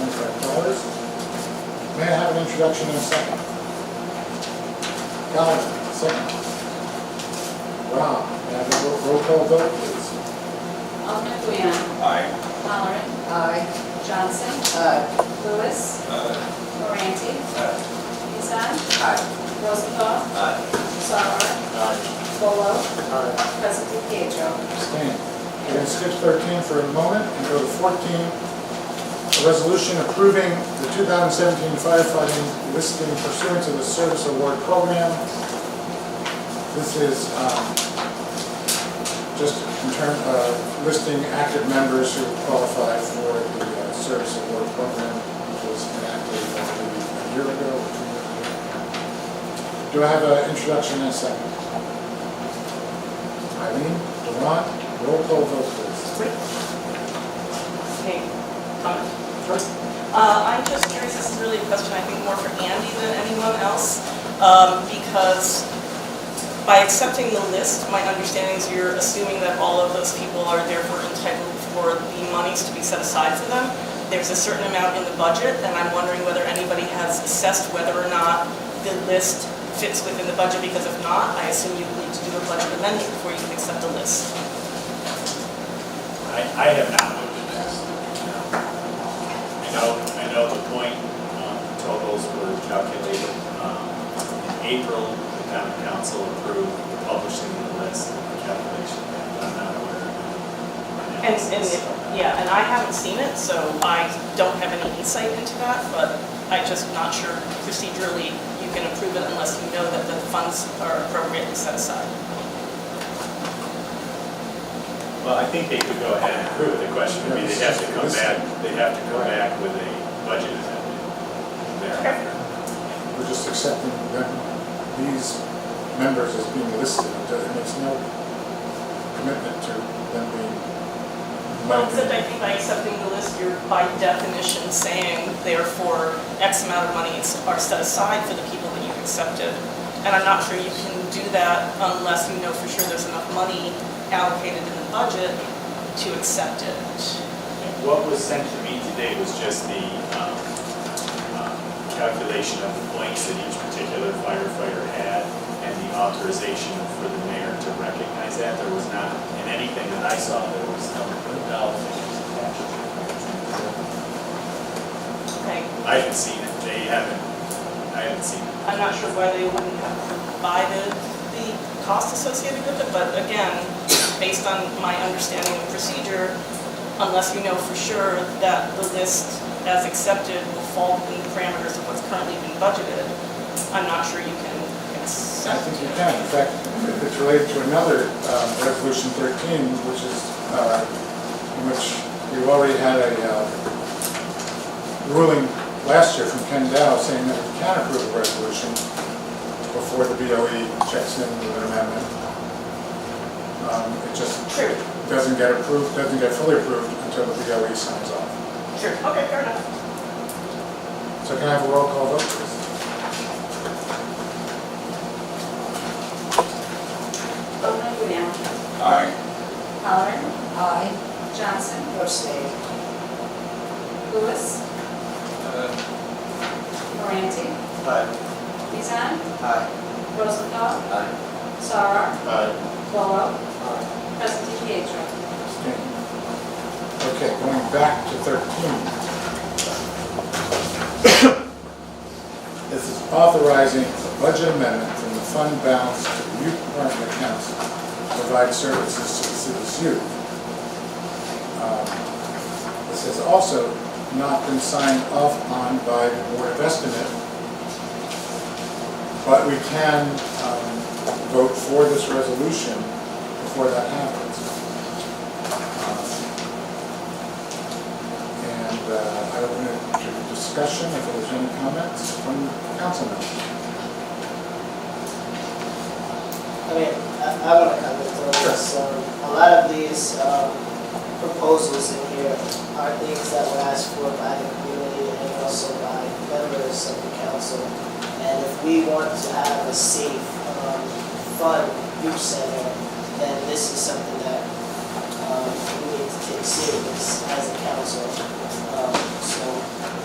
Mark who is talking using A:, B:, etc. A: orders. May I have an introduction and a second? Calvin, second. Rob, may I have a roll- roll call vote, please?
B: Alderman Kuyan.
C: Aye.
B: Halleran.
D: Aye.
B: Johnson.
D: Aye.
B: Lewis.
C: Aye.
B: Moranti.
C: Aye.
B: Isan.
D: Aye.
B: Rosenthal.
C: Aye.
B: Sauer. Volo. Presley Pietro.
A: Abstain. We're going to skip 13 for a moment and go to 14, a resolution approving the 2017 firefighting listing pursuant to the service award program. This is um, just in terms of listing active members who qualify for the uh, service award program, which was enacted I believe, a year ago. or two years ago. Do I have an introduction and a second? Eileen, Durant, roll call vote please.
E: Hey, comment? Uh, I'm just curious, this is really a question, I think more for Andy than anyone else, um, because by accepting the list, my understanding is you're assuming that all of those people are therefore entitled for the monies to be set aside for them. There's a certain amount in the budget, and I'm wondering whether anybody has assessed whether or not the list fits within the budget, because if not, I assume you need to do a budget amendment before you can accept the list.
F: I, I have not looked at this. I know, I know the point um, totals were calculated. um, In April, the county council approved the publishing of the list and the calculation, but I'm not aware of the
E: And,
F: analysis
E: and,
F: of that.
E: yeah, and I haven't seen it, so I don't have any insight into that, but I'm just not sure procedurally you can approve it unless you know that the funds are appropriately set aside.
F: Well, I think they could go ahead and approve it. The question would be, they'd have to come back, they'd have to come back with a budget amendment thereafter.
A: We're just accepting that these members as being listed, it makes no commitment to them being.
E: Well, except I think by accepting the list, you're by definition saying therefore X amount of money is- are set aside for the people that you've accepted. And I'm not sure you can do that unless you know for sure there's enough money allocated in the budget to accept it.
F: What was sent to me today was just the um, um, calculation of the blanks that each particular firefighter had and the authorization for the mayor to recognize that. There was not, in anything that I saw, there was no dollar figures attached.
E: Okay,
F: I haven't seen it. They haven't, I haven't seen it.
E: I'm not sure why they wouldn't have provided the cost associated with it, but again, based on my understanding of procedure, unless you know for sure that the list as accepted will fall within the parameters of what's currently been budgeted, I'm not sure you can
A: I
E: accept.
A: think you can, in fact, it's related to another, um, Resolution 13, which is, uh, in which we've already had a uh, ruling last year from Ken Dow saying that we can approve a resolution before the BOE checks in with an amendment. Um, It just
E: True,
A: doesn't get approved, doesn't get fully approved until the BOE signs off.
E: true, okay, fair enough.
A: So can I have a roll call vote, please?
B: Alderman Kuyan.
C: Aye.
B: Halleran.
D: Aye.
B: Johnson.
D: Abstain.
B: Lewis. Moranti.
C: Aye.
B: Isan.
C: Aye.
B: Rosenthal.
C: Aye.
B: Sauer.
C: Aye.
B: Volo. Presley Pietro.
A: Abstain. Okay, going back to 13. This is authorizing a budget amendment from the fund balance to the youth department accounts to provide services to the city's youth. Um, This has also not been signed off on by the Board of Estimate, but we can um, vote for this resolution before that happens. And uh, I open it to discussion if there's any comments from councilmen.
G: I mean, I I want to comment on this. Um, A lot of these um, proposals in here are things that were asked for by the community and also by members of the council. And if we want to have a safe, um, fun youth center, then this is something that um, we need to take serious as a council. Um, So